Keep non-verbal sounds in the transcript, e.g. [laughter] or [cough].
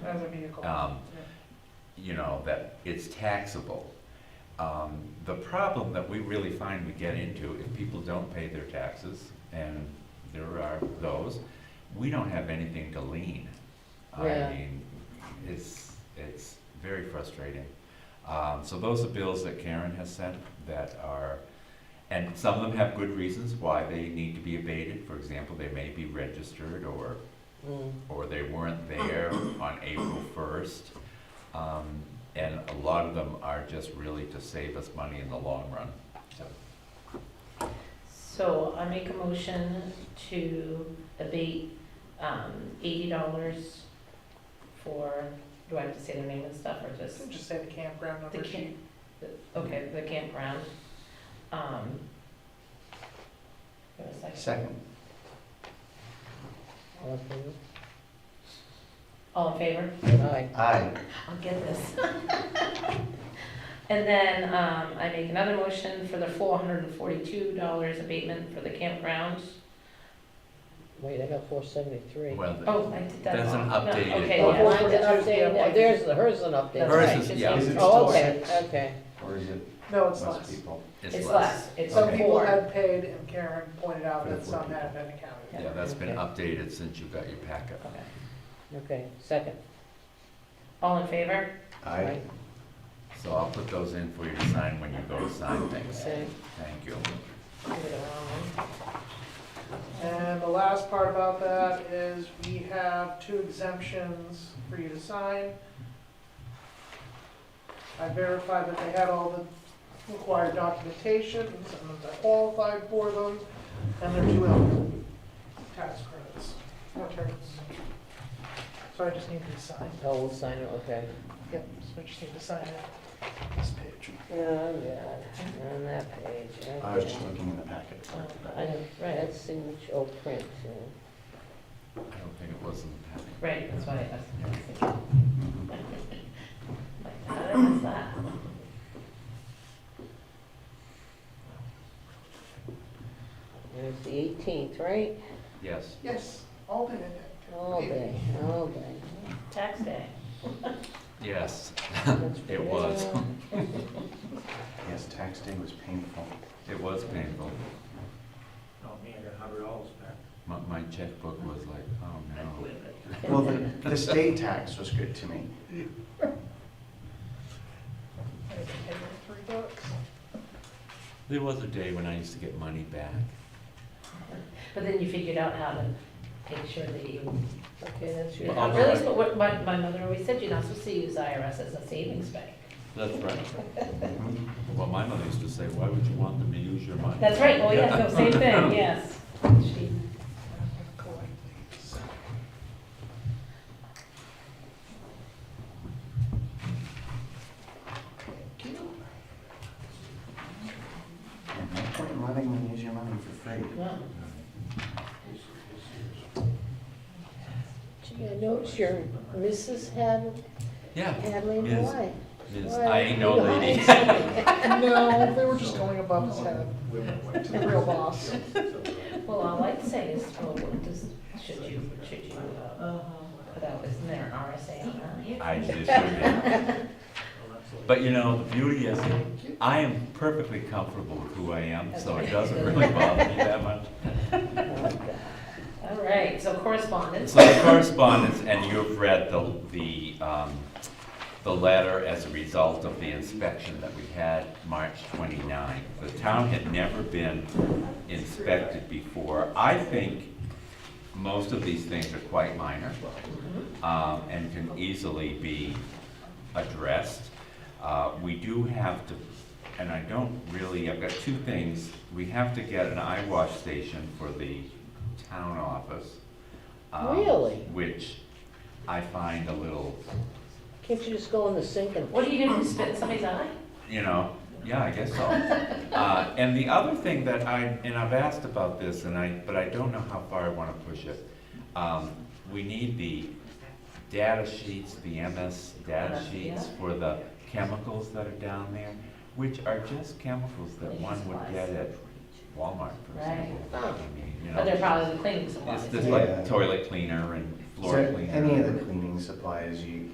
cost. Um, yeah. you know, that it's taxable. Um, The problem that we really find we get into, if people don't pay their taxes, and there are those, we don't have anything to lean. Yeah. I mean, it's, it's very frustrating. Um, So those are bills that Karen has sent that are, and some of them have good reasons why they need to be abated. For example, they may be registered or Mm. or they weren't there on April first. Um, and a lot of them are just really to save us money in the long run. So, So I make a motion to abate um, eighty dollars for, do I have to say their name and stuff, or just, Just say the campground The number camp- sheet. okay, the campground? Um, give me a second. Second. All in favor? Aye. Aye. I'll get this. And then um, I make another motion for the four hundred and forty-two dollars abatement for the campground. Wait, I got four seventy-three. Well, th- Oh, I did that. That's an wrong. No, updated Okay, Oh, yeah. Oh, mine's an update, now. there's, the- hers is an update. That's Hers right, is- it's yeah. not- Is it Oh, still okay, six? okay. Or is it No, it's less less. people? It's less, it's Some Okay. people four. have paid and Karen pointed out For the that four some people. have been accounted. Yeah, that's been updated since you got your packet. Okay. Okay, second. All in favor? Aye. So I'll put those in for you to sign when you go to sign things. Okay. Thank you. Do it around. And the last part about that is we have two exemptions for you to sign. I verified that they had all the required documentations and that they qualified for them, and they're two eligible tax credits, returns. So I just need to sign, Oh, we'll sign it, okay. yep, so I just need to sign it, this page. Oh, God, on that page, okay. I was just looking in the packet. Sorry. I know, Right, that's signature, oh, print, yeah. I don't think it was in the packet. Right, that's why I asked. Mhm. Like, how did I miss that? And it's the eighteenth, right? Yes. Yes, all day. All day, all day. Tax day. Yes, That's [laughs] it was. real. Yes, tax day was painful. It was painful. Oh, man, I got a hundred dollars back. My, my checkbook was like, oh I no. quit it. Well, the, the state tax was good to me. I had to pay them three bucks. There was a day when I used to get money back. But then you figured out how to make sure that you, Okay, that's you're your. Well, not I'll- really, spo- what my, my mother always said, you're not supposed to use IRS as a savings bank. That's right. Mhm. Well, my mother used to say, why would you want them to use your money? That's right, oh, yes, no, same thing, yes. She- I'm gonna collect these. Thank you. And no point in letting them use your money for free. Well, Gee, I noticed your Mrs. Had, Yeah. Hadley, Yes. why? Ms. Why? I ain't no Why? [laughs] lady. No, they were just going above his head to the real boss. Well, all I'd say is, well, what does, should you, should you, uh, put out, isn't there an RSA on that? I just do that. But you know, the beauty is, that I am perfectly comfortable with who I am, so it doesn't really bother me that much. All right, so correspondence. So the correspondence, and you've read the, the, um, the letter as a result of the inspection that we had March 29. The town had never been inspected before. I think most of these things are quite minor um, and can easily be addressed. Uh, We do have to, and I don't really, I've got two things. We have to get an eye wash station for the town office. um, Really? Which I find a little, Can't you just go in the sink and? What are you gonna do, spit in somebody's eye? you know, yeah, I [laughs] guess so. Uh, And the other thing that I, and I've asked about this, and I, but I don't know how far I want to push it. Um, We need the data sheets, the MS data sheets Yeah. for the chemicals that are down there, which are just chemicals that one would get at Walmart, for example. I mean, you But they're know, probably the cleaning supplies. It's just like Yeah. toilet cleaner and So floor cleaner. any of the cleaning supplies you